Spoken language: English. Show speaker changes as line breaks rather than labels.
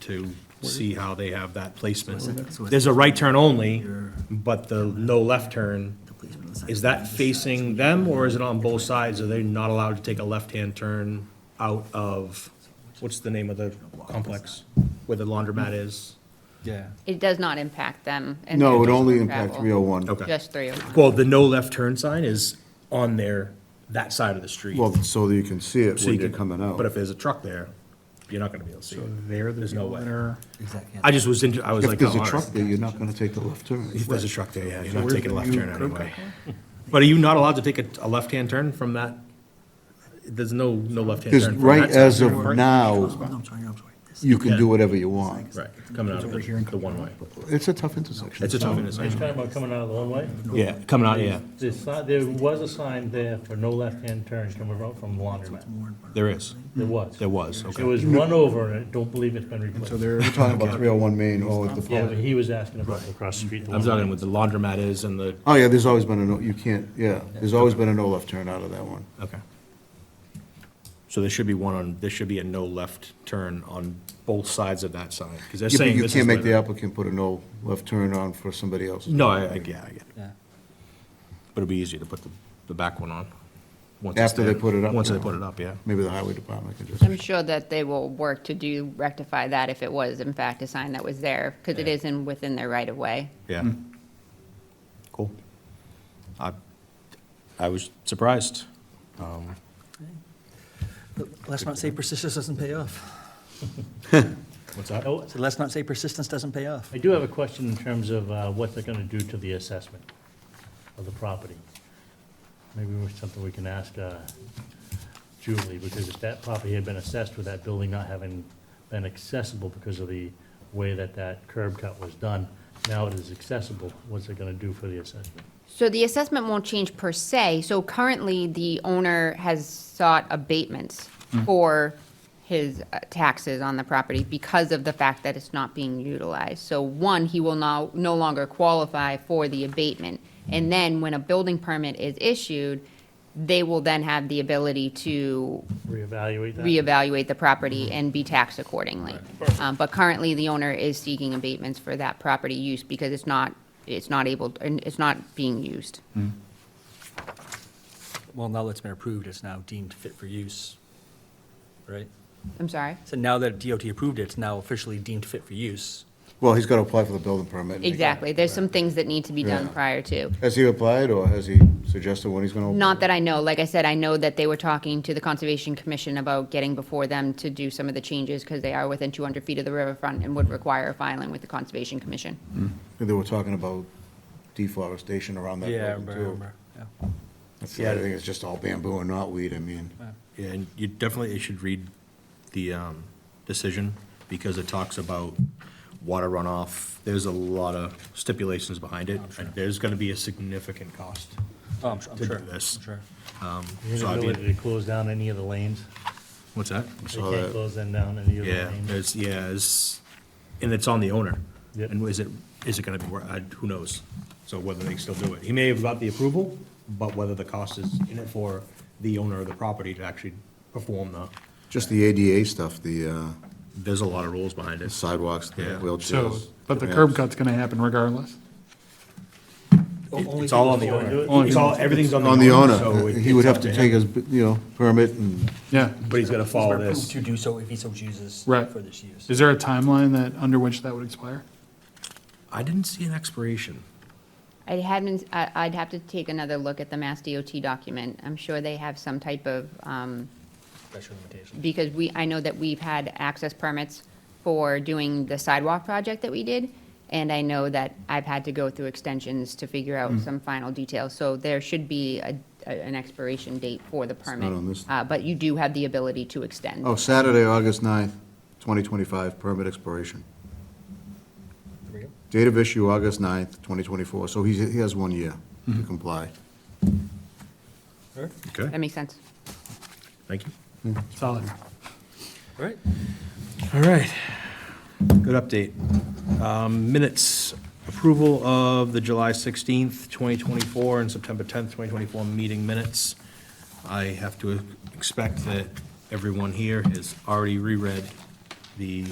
to see how they have that placement. There's a right turn only, but the no left turn, is that facing them or is it on both sides? Are they not allowed to take a left-hand turn out of, what's the name of the complex where the laundromat is?
Yeah.
It does not impact them. and their
No, it only
personal
impacts
travel.
301.
Okay.
Just 301.
Well, the no left turn sign is on their, that side of the street.
Well, so that you can see it
So
when
you
you're
can-
coming out.
But if there's a truck there, you're not gonna be able to see it.
They're the
There's no
people
way.
that are,
I just was, inter- I was
If
like.
there's
oh,
a
all
truck
right.
there, you're not gonna take the left turn.
If there's a truck there, yeah, you're not
where's
taking a
the
left
new
turn
curb
anyway. But are you not allowed to take a, a left-hand turn from that? There's no, no left-hand turn.
Because
from
right
that side.
as of now, you can
Yeah.
do whatever you want.
Right, coming out of the, the one-way.
It's a tough intersection.
It's a tough
It's
intersection.
talking about coming out of the one-way?
Yeah, coming out, yeah,
There's si- There was a sign there for no left-hand turn coming out from the laundromat.
there is,
There was.
there was,
It
okay.
was run over, and I don't believe it's been
so
replaced.
they're,
We're talking about 301 Main, oh, the
Yeah,
public.
but he was asking about across the street. the
I'm
one-
talking with the laundromat is and the,
Oh, yeah, there's always been a no, you can't, yeah, there's always been a no left turn out of that one.
okay. So there should be one on, there should be a no left turn on both sides of that sign, because they're
Yeah, but
saying
You
this is
can't make the
where
applicant put a no left turn on for somebody else.
the- No, I, I, yeah, I get it.
yeah.
But it'd be easier to put the, the back one on. once it's
After they
there.
put it up.
Once
you
they
know.
put it up, yeah.
Maybe the highway department can just.
I'm sure that they will work to do rectify that if it was in fact a sign that was there, because it is in, within their right of way.
Yeah.
Hmm.
Cool. I, I was surprised. Um,
Let's not say persistence doesn't pay off.
What's that?
Oh,
So let's not say persistence doesn't pay off.
I do have a question in terms of uh, what they're gonna do to the assessment of the property. Maybe it's something we can ask uh, Julie, because if that property had been assessed with that building not having been accessible because of the way that that curb cut was done, now it is accessible, what's it gonna do for the assessment?
So the assessment won't change per se. So currently, the owner has sought abatements for his uh, taxes on the property because of the fact that it's not being utilized. So one, he will now, no longer qualify for the abatement. And then when a building permit is issued, they will then have the ability to
Reevaluate that?
reevaluate the property and be taxed accordingly. Um, But currently, the owner is seeking abatements for that property use because it's not, it's not able, and it's not being used.
Well, now that it's been approved, it's now deemed fit for use, right?
I'm sorry?
So now that DOT approved it, it's now officially deemed fit for use.
Well, he's gotta apply for the building permit. and they-
Exactly. There's some things that need to be done
Yeah.
prior to.
Has he applied, or has he suggested when he's gonna?
Not that I know, like I said, I know that they were talking to the Conservation Commission about getting before them to do some of the changes because they are within 200 feet of the riverfront and would require filing with the Conservation Commission.
They were talking about deforestation around that
Yeah, I
building,
remember, I
too.
remember, yeah.
That's- I think it's just all bamboo and knotweed, I mean.
Yeah, and you definitely should read the um, decision, because it talks about water runoff. There's a lot of stipulations behind
Oh,
it. There's gonna be a significant cost.
Oh, I'm su- I'm
To do
sure,
this.
I'm sure.
Is
So I'd
there an
be-
ability to close down any of the lanes?
What's that?
They can't close them down, any of the
Yeah,
lanes?
there's, yeah, it's, and it's on the owner.
Yep.
And is it, is it gonna be, wor- I- who knows? So whether they still do it. He may have got the approval, but whether the cost is in it for the owner of the property to actually perform the,
Just the ADA stuff, the uh,
there's a lot of rules behind it.
sidewalks, the
Yeah.
So,
wheelchairs.
but the
ramps.
curb cut's gonna happen regardless.
It's all on the owner. It's all, everything's on the owner.
On the
so
owner,
it-
he would
it's
have
up
to
him.
take his, you know, permit and,
Yeah,
But he's gonna follow
He's been approved
this.
To do so if he so chooses.
Right.
For this use.
Is there a timeline that, under which that would expire?
I didn't see an expiration.
I hadn't, I- I'd have to take another look at the Mass DOT document. I'm sure they have some type of, um,
Special limitation.
because we, I know that we've had access permits for doing the sidewalk project that we did, and I know that I've had to go through extensions to figure out
Hmm.
some final details, so there should be a, a- an expiration date for the permit.
on this.
Uh, but you do have the ability to extend.
oh, Saturday, August 9th, 2025, permit expiration.
There we go.
Date of issue, August 9th, 2024, so he's, he has one year to comply.
All right,
Okay,
That makes sense.
thank you.
Solid.
all right.
All right, good update. Um, Minutes, approval of the July 16th, 2024, and September 10th, 2024 meeting minutes. I have to expect that everyone here has already reread the